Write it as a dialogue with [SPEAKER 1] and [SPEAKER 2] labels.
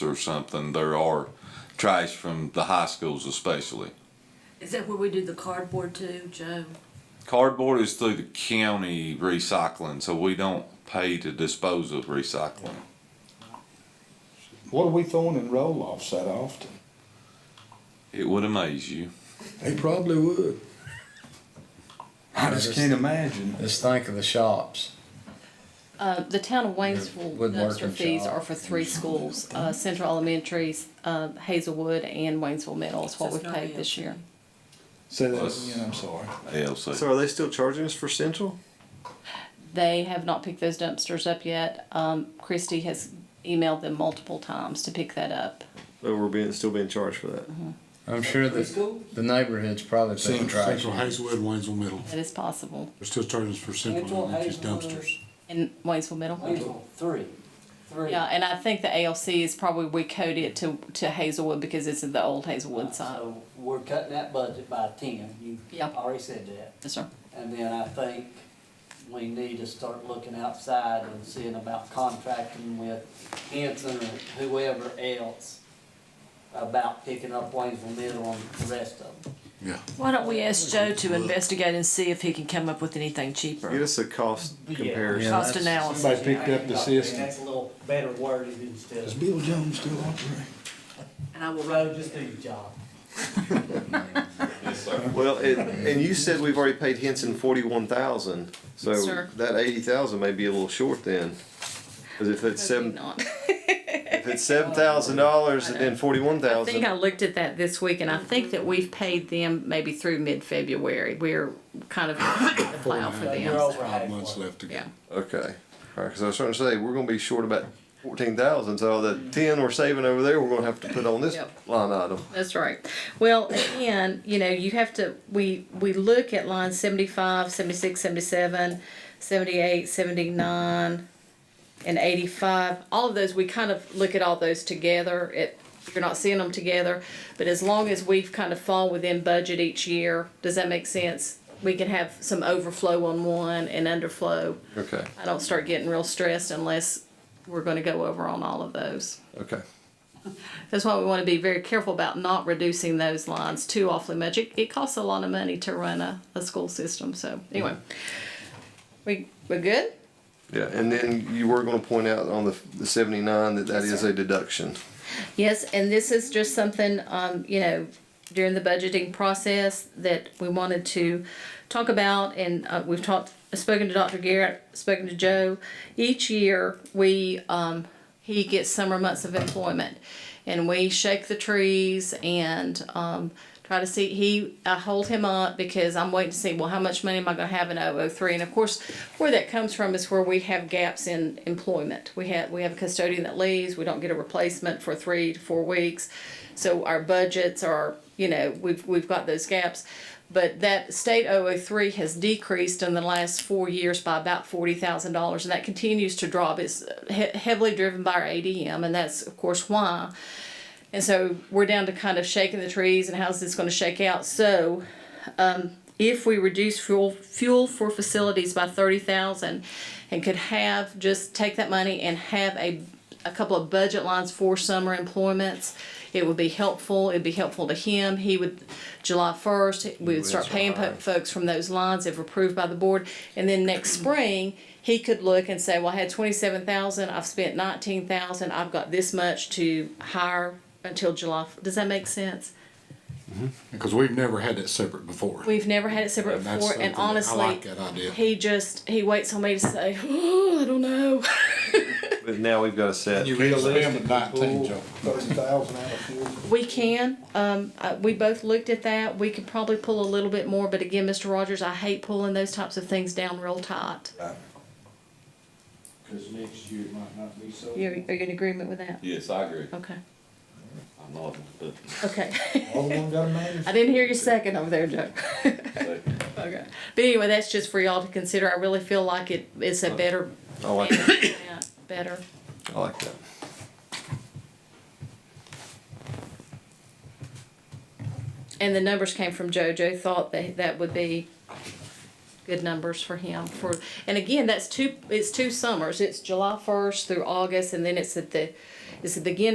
[SPEAKER 1] or something, there are trash from the high schools especially.
[SPEAKER 2] Is that where we do the cardboard too, Joe?
[SPEAKER 1] Cardboard is through the county recycling, so we don't pay to dispose of recycling.
[SPEAKER 3] What are we throwing in roll offs that often?
[SPEAKER 1] It would amaze you.
[SPEAKER 4] They probably would.
[SPEAKER 3] I just can't imagine.
[SPEAKER 5] Just think of the shops.
[SPEAKER 6] Uh, the town of Waynesville
[SPEAKER 5] Woodworking
[SPEAKER 6] dumpster fees
[SPEAKER 5] shop.
[SPEAKER 6] are for three schools, uh, Central Elementary, uh, Hazelwood, and Waynesville Middle is
[SPEAKER 2] So
[SPEAKER 6] what
[SPEAKER 2] it's
[SPEAKER 6] we've
[SPEAKER 2] not
[SPEAKER 6] paid this
[SPEAKER 2] ELC.
[SPEAKER 6] year.
[SPEAKER 3] Say that
[SPEAKER 1] Plus-
[SPEAKER 3] again, I'm sorry.
[SPEAKER 1] ALC.
[SPEAKER 7] So are they still charging us for Central?
[SPEAKER 6] They have not picked those dumpsters up yet. Um, Christie has emailed them multiple times to pick that up.
[SPEAKER 7] Or we're being still being charged for that?
[SPEAKER 6] Uh-huh.
[SPEAKER 5] I'm sure the, the neighborhood's probably paying
[SPEAKER 4] Central,
[SPEAKER 5] trash.
[SPEAKER 4] Central Hazelwood, Waynesville Middle.
[SPEAKER 6] That is possible.
[SPEAKER 4] They're still charging us for Central, which is dumpsters.
[SPEAKER 6] In Waynesville Middle?
[SPEAKER 8] Hazel, three, three.
[SPEAKER 6] Yeah, and I think the ALC is probably, we code it to, to Hazelwood because it's the old Hazelwood side.
[SPEAKER 8] So we're cutting that budget by ten, you
[SPEAKER 6] Yeah.
[SPEAKER 8] already said that.
[SPEAKER 6] Yes, sir.
[SPEAKER 8] And then I think we need to start looking outside and seeing about contracting with Hanson or whoever else about picking up Waynesville Middle and the rest of them.
[SPEAKER 4] Yeah.
[SPEAKER 2] Why don't we ask Joe to investigate and see if he can come up with anything
[SPEAKER 7] Get
[SPEAKER 2] cheaper?
[SPEAKER 7] us a cost
[SPEAKER 8] Yeah.
[SPEAKER 7] comparison.
[SPEAKER 2] Cost analysis.
[SPEAKER 3] Somebody picked up the system.
[SPEAKER 8] That's a little better worded instead
[SPEAKER 4] Is
[SPEAKER 8] of,
[SPEAKER 4] Bill Jones still operating?
[SPEAKER 2] And I will
[SPEAKER 8] road, just do your job.
[SPEAKER 7] Well, it, and you said we've already paid Henson forty-one thousand, so
[SPEAKER 6] Sir.
[SPEAKER 7] that eighty thousand may be a little short then. Cause if it's
[SPEAKER 6] Probably
[SPEAKER 7] seven,
[SPEAKER 6] not.
[SPEAKER 7] if it's seven thousand dollars and then forty-one
[SPEAKER 6] I think I
[SPEAKER 7] thousand,
[SPEAKER 6] looked at that this week, and I think that we've paid them maybe through mid-February. We're kind of the plow for
[SPEAKER 8] You're
[SPEAKER 6] them.
[SPEAKER 8] over
[SPEAKER 4] Five
[SPEAKER 8] halfway.
[SPEAKER 4] months left to go.
[SPEAKER 6] Yeah.
[SPEAKER 7] okay. Alright, cause I was trying to say, we're gonna be short about fourteen thousand, so that ten we're saving over there, we're gonna have to put on this
[SPEAKER 6] Mm-hmm. Yep.
[SPEAKER 7] line item.
[SPEAKER 6] That's right. Well, again, you know, you have to, we, we look at line 75, 76, 77, 78, 79, and 85. All of those, we kind of look at all those together. It, you're not seeing them together, but as long as we've kind of fall within budget each year, does that make sense? We can have some overflow on one and underflow.
[SPEAKER 7] Okay,
[SPEAKER 6] I don't start getting real stressed unless we're going to go over on all of those.
[SPEAKER 7] okay.
[SPEAKER 6] That's why we want to be very careful about not reducing those lines too awfully much. It, it costs a lot of money to run a, a school system. So anyway, Mm-hmm. we we're good.
[SPEAKER 7] Yeah, and then you were gonna point out on the, the seventy-nine that that is a deduction.
[SPEAKER 6] Yes, and this is just something um, you know during the budgeting process that we wanted to talk about, and uh, we've talked spoken to Dr. Garrett, spoken to Joe. Each year we um, he gets summer months of employment, and we shake the trees and. Um, try to see he i hold him up because i'm waiting to see well how much money am i going to have in 003 and of course where that comes from is where we have gaps in employment we have we have a custodian that leaves we don't get a replacement for three to four weeks so our budgets are you know we've we've got those gaps but that state 003 has decreased in the last four years by about $40,000, and that continues to drop. It's uh, he- heavily driven by our ADM, and that's, of course, why. And so we're down to kind of shaking the trees and how's this going to shake out. So um, if we reduce fuel fuel for facilities by thirty thousand, and could have just take that money and have a a couple of budget lines for summer employments, it would be helpful. It'd be helpful to him. He would July first we would start paying po- folks from those lines if approved by the board, and then next spring. He could look and say, "Well, I had twenty-seven thousand. I've spent nineteen thousand. I've got this much to hire until July." f- Does that make sense?
[SPEAKER 4] Because we've never had that separate before.
[SPEAKER 6] We've never had it separate
[SPEAKER 4] And that's
[SPEAKER 6] before,
[SPEAKER 4] something
[SPEAKER 6] and
[SPEAKER 4] that- I
[SPEAKER 6] honestly,
[SPEAKER 4] like that idea.
[SPEAKER 6] he just he waits on me to say, oh, "I don't know."
[SPEAKER 7] But now we've got a set.
[SPEAKER 4] You can't spend nineteen, Joe.
[SPEAKER 3] Thirty thousand out of fuel.
[SPEAKER 6] we can. Um, uh, we both looked at that. We could probably pull a little bit more, but again, Mr. Rogers, I hate pulling those types of things down real tight.
[SPEAKER 3] Cause next year it might not be so.
[SPEAKER 6] You, are you in agreement with that?
[SPEAKER 1] Yes, I agree.
[SPEAKER 6] Okay.
[SPEAKER 1] I'm not, but
[SPEAKER 6] Okay.
[SPEAKER 3] All the one got a man.
[SPEAKER 6] I didn't hear your second over there, Joe.
[SPEAKER 1] second.
[SPEAKER 6] okay. But anyway, that's just for y'all to consider. I really feel like it. It's a better,
[SPEAKER 7] I like that.
[SPEAKER 6] better.
[SPEAKER 7] I like that.
[SPEAKER 6] And the numbers came from Joe. Joe thought that that would be good numbers for him for and again that's two it's two summers. It's July first through August and then it's at the it's at the beginning